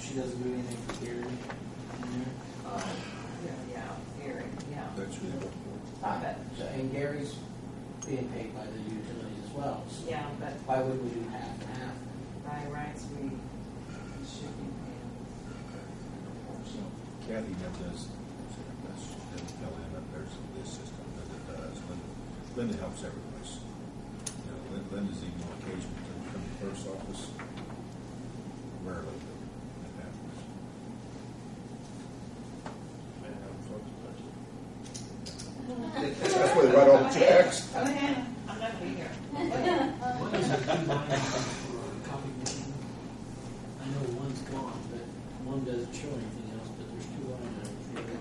she doesn't do anything for Gary. in Oh, yeah, Gary, yeah, That's really good. I bet, there. So, and Gary's being paid by the utilities as well, so yeah, but why would we do half and half? by rights, we we should be paying. So Kathy got this, that's, that's Kelly, and then there's this system that it does. Linda, Linda helps every place. You know, Lin- Linda's even on occasion comes from the first office. Rarely, but it happens. That's why they write all the checks. Go ahead, I'm not gonna be here. Uh, What is the two line items for a copy machine? I know one's gone, but one doesn't show anything else, but there's two line items here.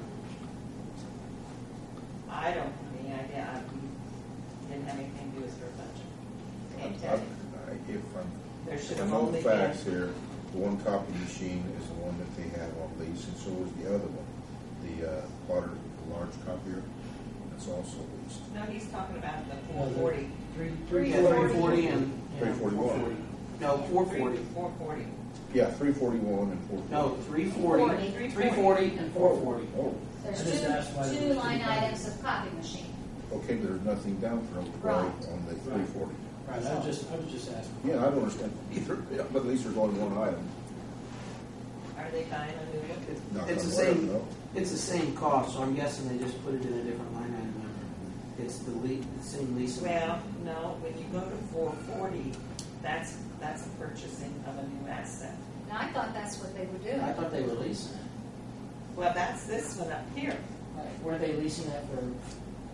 I don't have any idea, I we didn't have anything to do with her budget. Can't tell you. I- If I'm There should I have know only the been. facts here, the one copy machine is the one that they have on lease, and so is the other one. The uh, water, the large copier, that's also leased. No, he's talking about the No, four the forty. Three, Three yeah, forty. and. yeah, 341. 440. No, four forty. Four forty. Yeah, three forty-one and four forty. No, three forty, Forty. three forty and four forty. Oh, There's I just asked why two, there two was line two copies. items of copy machine. okay, there's nothing down for Right. override on the three forty. Right, I was just, I was just asking. Yeah, I don't understand either, Yeah, but at least there's only one item. Are they buying a new one? Not It's the gonna work, same- no. It's the same cost, so I'm guessing they just put it in a different line item number. It's the le, the same lease. Well, no, when you go to four forty, that's, that's a purchasing of a new asset. And I thought that's what they were I doing. thought they were leasing it. Well, that's this one up here. Were they leasing it for,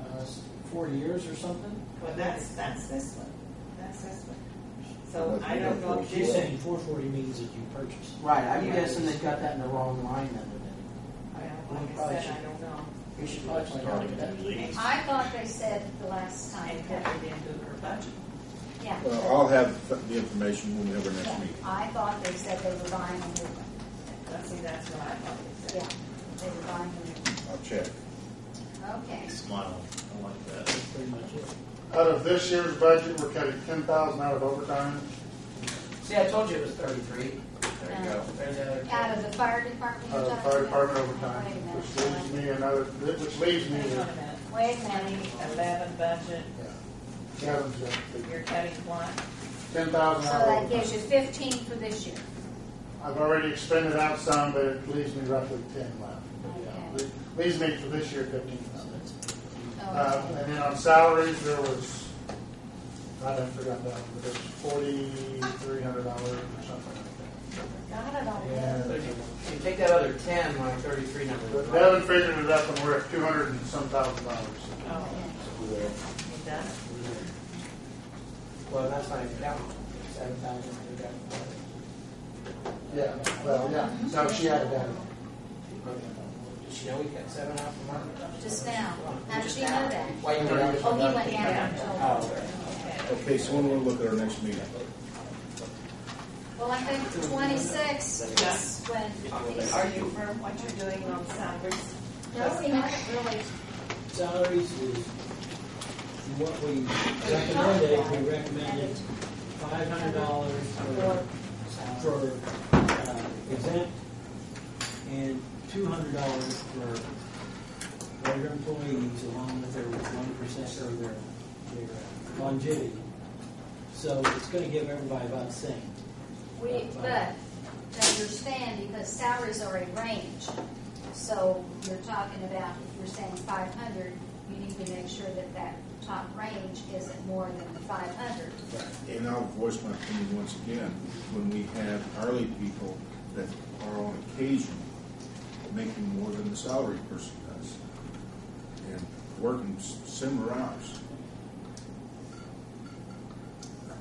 uh, s- four years or something? Well, that's, that's this one. That's this one. So Unless I we don't don't know if foresee She's this, saying four forty means that you purchased. Right, I'm Yeah. guessing they got that in the wrong line number then. well, We like probably I said, I should- don't know. We should probably find out Starting that. at least. I thought they said the last I time, didn't that- put it into her budget. yeah. Well, I'll have the information when we have our Yeah. next meeting. I thought they said they were buying a new one. Let's see, that's what I thought it Yeah, said. they were buying a new I'll check. one. Okay. Smile, I like that. That's pretty much it. Out of this year's budget, we're cutting ten thousand out of overtime. See, I told you it was thirty-three. There you go. There's the other. Out of the fire department? Out of the fire department overtime, which leaves me another, which leaves me Hang on a with minute. Wait a minute. Eleven budget, Kevin's you're cutting what? ten thousand So out that of gives overtime. you fifteen for this year. I've already expended out some, but it leaves me roughly ten left. Okay. Oh, Le- Leaves me for this year fifteen thousand. Uh, Okay. and then on salaries, there was, I done forgot that, but it's forty-three hundred dollars or something like Got it all. that. And You take that other ten, my thirty-three number. But Devin figured it up and we're at two hundred and some thousand dollars. Oh, you done? Well, that's not even counting, seven thousand, I got Yeah, well, yeah, no, she added that. Did she know we cut seven out from Margaret? Just now. How did Just she know now. that? Why you went out? Oh, he went down and Oh, told her. okay. Okay. Okay, so when we look at our next meeting? Well, I think twenty-six is when these. Are you firm what you're doing on salaries? No, we haven't really, Salaries is what we recommended, we recommended five hundred dollars for, for uh, exempt and two hundred dollars for regular employees along with their one percent or their, their longevity. So it's gonna give everybody about the same. we, but to understand, because salaries are a range. So you're talking about, if you're saying five hundred, you need to make sure that that top range isn't more than the five hundred. And I'll voice my opinion once again, when we have hourly people that are on occasion making more than the salary person does and working s- similar hours.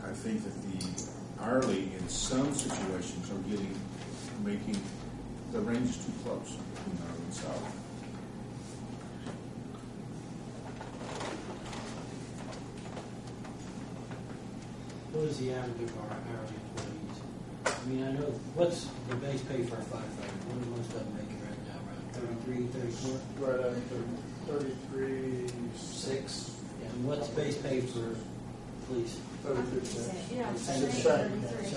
I think that the hourly in some situations are getting, making, the range is too close between hourly and salary. What is the average of our hourly employees? I mean, I know, what's the base pay for a firefighter? What do most of them make right now, around thirty-three, thirty-four? Right, I think thirty-three, six, And what's base pay for police? thirty-three, six. You know, Same. thirty-three.